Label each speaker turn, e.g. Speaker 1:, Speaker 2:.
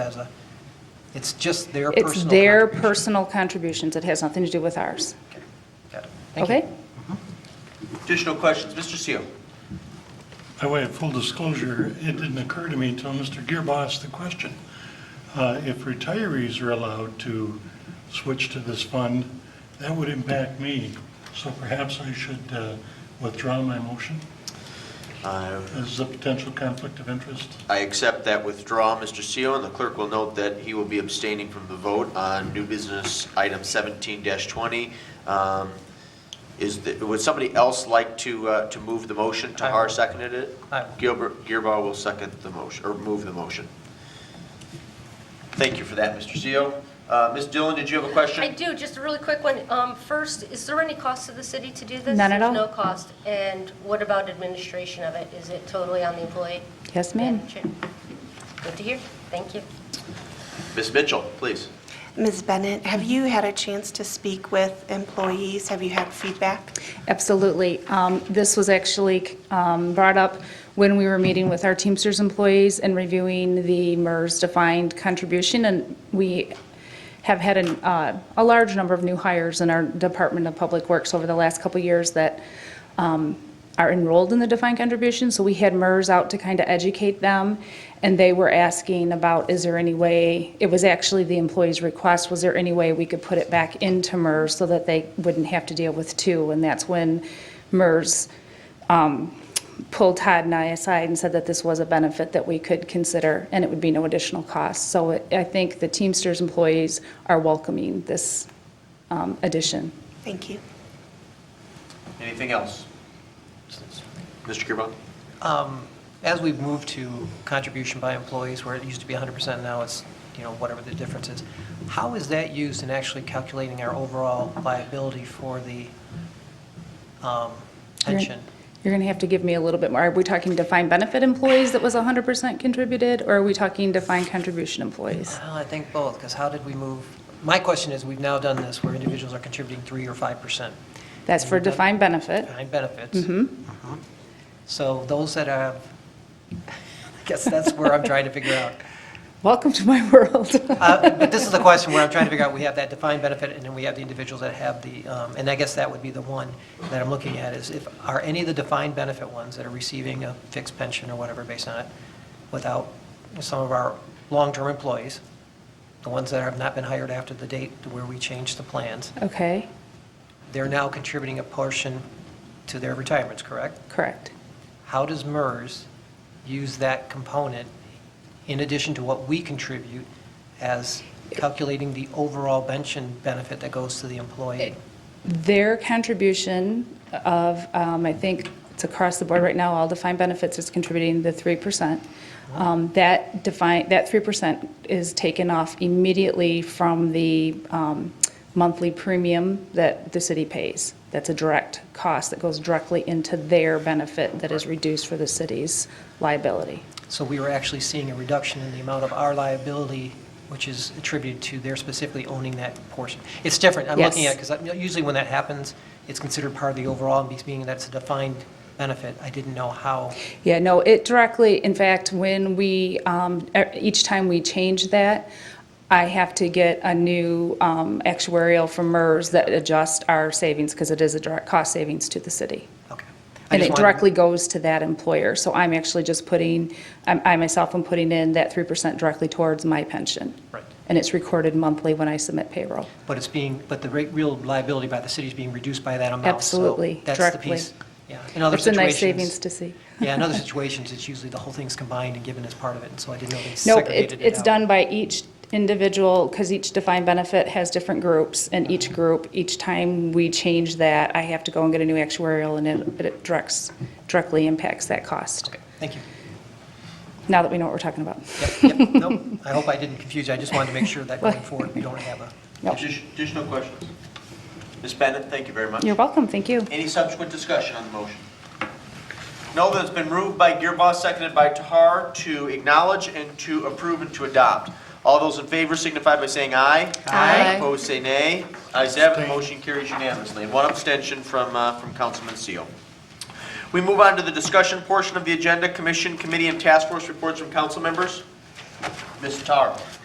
Speaker 1: as a, it's just their personal.
Speaker 2: It's their
Speaker 1: contribution.
Speaker 2: personal contributions. It has nothing to do with ours.
Speaker 1: Okay, Got it. Thank you.
Speaker 2: Okay?
Speaker 3: Additional questions, Mr. Seal?
Speaker 4: By way of full disclosure, it didn't occur to me until Mr. Gearba asked the question. Uh, If retirees are allowed to switch to this fund, that would impact me, so perhaps I should uh, withdraw my motion as a potential conflict of interest.
Speaker 3: I accept that withdrawal, Mr. Seal, and the clerk will note that he will be abstaining from the vote on new business item 17-20. Um, Is, the- would somebody else like to, uh, to move the motion?
Speaker 1: I will.
Speaker 3: Tahar seconded it?
Speaker 1: I will.
Speaker 3: Gilbert, Gearba will second the motion, or move the motion. Thank you for that, Mr. Seal. Uh, Ms. Dillon, did you have a question?
Speaker 5: I do, just a really quick one. Um, First, is there any cost to the city to do this?
Speaker 2: None at all.
Speaker 5: There's no cost. And what about administration of it? Is it totally on the employee?
Speaker 2: Yes, ma'am.
Speaker 5: Good to hear. Thank you.
Speaker 3: Ms. Mitchell, please.
Speaker 6: Ms. Bennett, have you had a chance to speak with employees? Have you had feedback?
Speaker 2: Absolutely. Um, This was actually um, brought up when we were meeting with our Teamsters employees and reviewing the MERS defined contribution, and we have had an, uh, a large number of new hires in our Department of Public Works over the last couple of years that um, are enrolled in the defined contribution, so we had MERS out to kind of educate them, and they were asking about, is there any way, it was actually the employee's request, was there any way we could put it back into MERS so that they wouldn't have to deal with two? And that's when MERS um, pulled Todd and I aside and said that this was a benefit that we could consider, and it would be no additional cost. So it- I think the Teamsters employees are welcoming this um, addition.
Speaker 6: Thank you.
Speaker 3: Anything else? Mr. Gearba?
Speaker 1: Um, As we've moved to contribution by employees, where it used to be 100%, now it's, you know, whatever the difference is, how is that used in actually calculating our overall liability for the um,
Speaker 2: You're-
Speaker 1: pension?
Speaker 2: You're going to have to give me a little bit more. Are we talking defined benefit employees that was 100% contributed, or are we talking defined contribution employees?
Speaker 1: Well, I think both, because how did we move, my question is, we've now done this where individuals are contributing 3 or 5%
Speaker 2: That's for defined benefit.
Speaker 1: behind benefits.
Speaker 2: hmm
Speaker 1: So those that have, I guess that's where I'm trying to figure out.
Speaker 2: Welcome to my world.
Speaker 1: Uh, But this is the question where I'm trying to figure out, we have that defined benefit, and then we have the individuals that have the, um, and I guess that would be the one that I'm looking at, is if, are any of the defined benefit ones that are receiving a fixed pension or whatever based on it, without some of our long-term employees, the ones that have not been hired after the date where we changed the plans,
Speaker 2: Okay,
Speaker 1: they're now contributing a portion to their retirements, correct?
Speaker 2: correct.
Speaker 1: How does MERS use that component in addition to what we contribute as calculating the overall pension benefit that goes to the employee?
Speaker 2: Their contribution of, um, I think it's across the board right now, all defined benefits is contributing the 3%. Um, That define, that 3% is taken off immediately from the um, monthly premium that the city pays. That's a direct cost that goes directly into their benefit that is reduced for the city's liability.
Speaker 1: So we were actually seeing a reduction in the amount of our liability, which is attributed to their specifically owning that portion. It's different, I'm looking
Speaker 2: Yes.
Speaker 1: at, because usually when that happens, it's considered part of the overall, and being that it's a defined benefit, I didn't know how,
Speaker 2: Yeah, no, it directly, in fact, when we, um, e- each time we change that, I have to get a new um, actuarial from MERS that adjusts our savings because it is a direct cost savings to the city.
Speaker 1: okay. I
Speaker 2: And
Speaker 1: just
Speaker 2: it
Speaker 1: wanted-
Speaker 2: directly goes to that employer. So I'm actually just putting, I'm- I myself am putting in that 3% directly towards my pension.
Speaker 1: Right.
Speaker 2: And it's recorded monthly when I submit payroll.
Speaker 1: But it's being, but the rate- real liability by the city is being reduced by that amount. so
Speaker 2: Absolutely,
Speaker 1: That's the
Speaker 2: directly.
Speaker 1: piece. Yeah, in other
Speaker 2: It's a
Speaker 1: situations.
Speaker 2: nice savings to see.
Speaker 1: Yeah, in other situations, it's usually the whole thing's combined and given as part of it, and so I didn't know they
Speaker 2: Nope, it-
Speaker 1: segregated it out.
Speaker 2: it's done by each individual, because each defined benefit has different groups, and each group, each time we change that, I have to go and get a new actuarial, and it it directs, directly impacts that cost,
Speaker 1: Okay, thank you.
Speaker 2: now that we know what we're talking about.
Speaker 1: Yep, yep, nope, I hope I didn't confuse you, I just wanted to make sure that going forward, we don't have a,
Speaker 2: Yep.
Speaker 3: Addi- Additional questions? Ms. Bennett, thank you very much.
Speaker 2: You're welcome, thank you.
Speaker 3: Any subsequent discussion on the motion? No, that it's been moved by Gearboss, seconded by Tahar, to acknowledge and to approve and to adopt. All those in favor signify by saying aye.
Speaker 6: Aye.
Speaker 3: Opposed, say nay. Ayes have it, the
Speaker 4: Abstain.
Speaker 3: motion carries unanimously. One abstention from, uh, from Councilman Seal. We move on to the discussion portion of the agenda, commission, committee, and task force reports from council members. Ms. Tahar.